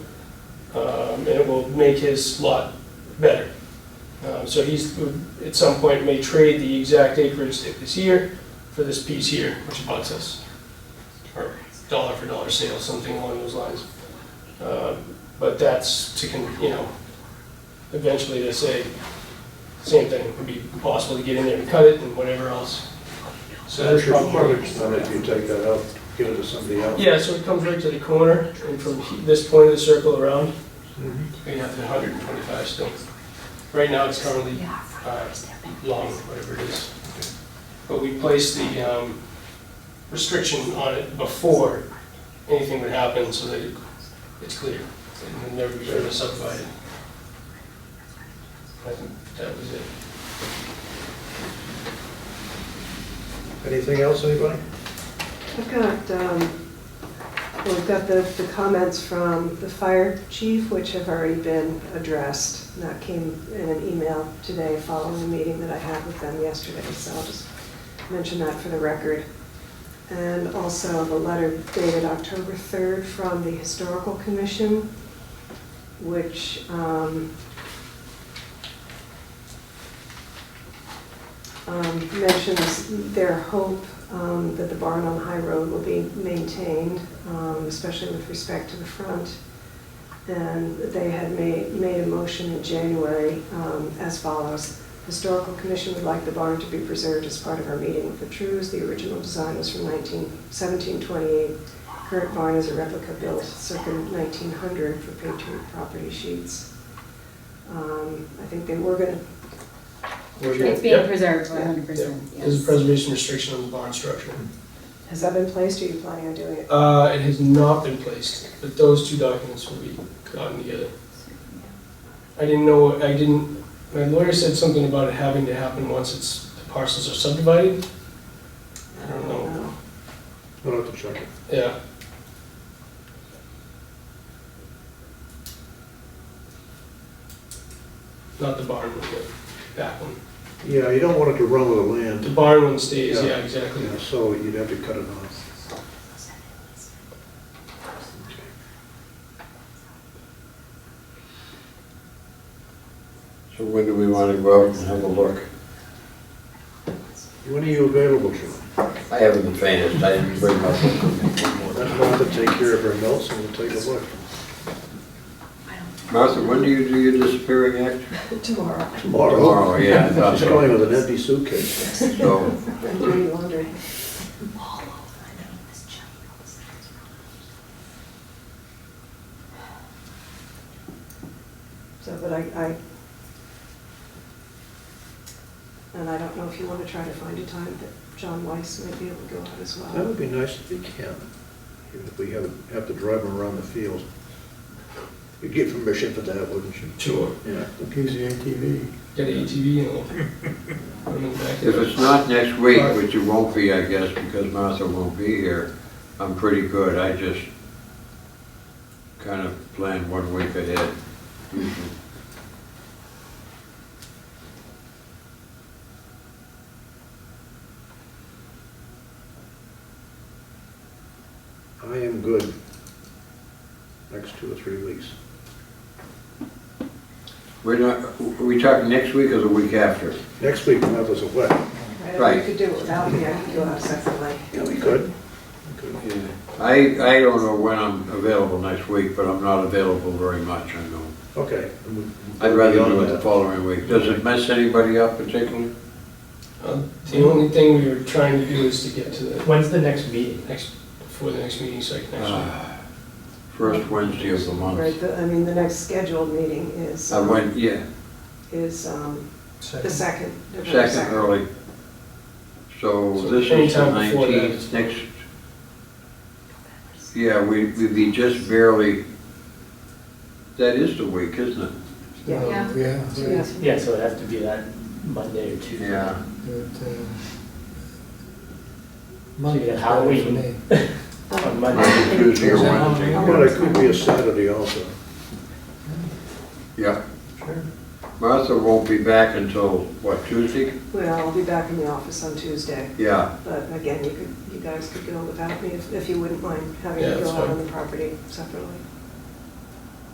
um, and it will make his lot better. Um, So he's, at some point, may trade the exact acreage that was here for this piece here, which abuts us. Or dollar for dollar sale, something along those lines. Um, But that's to, con- you know, eventually to say, same thing, it would be possible to get in there and cut it and whatever else. So that's That's your probably. mortgage, then if you take that out, give it to somebody else. Yeah, so it comes right to the corner, and from he- this point of the circle around, Mm-hmm. we have the 125 still. Right now, it's currently uh, long, whatever it is. But we placed the um, restriction on it before anything would happen, so that it- it's clear, and it'll never be further subdivided. I think that was it. Anything else, anybody? I've got, um, well, we've got the, the comments from the fire chief, which have already been addressed. And that came in an email today following the meeting that I had with them yesterday, so I'll just mention that for the record. And also the letter dated October 3rd from the historical commission, which, um, um, mentions their hope um, that the barn on High Road will be maintained, um, especially with respect to the front. And they had made, made a motion in January um, as follows. Historical Commission would like the barn to be preserved as part of our meeting with the Trues. The original design was from 19 1728. Current barn is a replica built circa 1900 for Patriot property sheets. Um, I think they were going to Where's your- It's being Yep. preserved one hundred percent, There's a yes. preservation restriction on the barn structure. Mm-hmm. Has that been placed, or are you planning on doing it? Uh, It has not been placed, but those two documents will be gotten together. I didn't know, I didn't, my lawyer said something about it having to happen once it's, the parcels are subdivided. I don't know, No. We'll have to check it. yeah. Not the barn one, the back one. Yeah, you don't want it to run with the The land, barn one stays, yeah, Yeah. exactly. Yeah, so you'd have to cut it off. So when do we want to go out and have a look? When are you available, John? I haven't the faintest, I didn't bring my book with me. Let Martha take care of her notes and we'll take a look. Martha, when do you do your disappearing act? Tomorrow. Tomorrow. Tomorrow, yeah, I thought She's so. going with an empty suitcase. So, I'm doing laundry. So, but I, I, and I don't know if you want to try to find a time that John Weiss might be able to go out as That well. would be nice if you can, even if we have, have to drive them around the field. You'd get permission for that, wouldn't you? Sure. Yeah. Gives you ATV. Got an ATV and all. Put 'em in the back. if it's not next week, which it won't be, I guess, because Martha won't be here, I'm pretty good. I just kind of plan one week ahead. I am good next two or three weeks. We're not, are we talking next week or the week after? Next week, Martha's away. I don't know if Right. You could do it without me, I could go out separately. Yeah, we could. We could. Yeah. I, I don't know when I'm available next week, but I'm not available very much, I know. Okay. I'd rather do it the Beyond that. following week. Does it mess anybody up particularly? Uh, The only thing we were trying to do is to get to the When's the next meeting? next, before the next meeting, so I can actually Ah, First Wednesday of the Right, month. the- I mean, the next scheduled meeting is, I went, yeah, is um, the Second. second. November second early. So So this is the anytime before that is- nineteenth, next. Yeah, we, we'd be just barely, that is the week, isn't it? Yeah. Yeah. Yeah. Yeah. Yeah, so it'd have to be that Monday or Tuesday. Yeah. But, uh, So you Monday's got better for Halloween. me. On Um, Monday. Tuesday or Wednesday. But it could be a Saturday also. Yeah. Sure. Martha won't be back until, what, Tuesday? Well, I'll be back in the office on Tuesday. Yeah, But again, you could, you guys could go without me if, if you wouldn't mind having Yeah, to that's go out fine. on the property separately.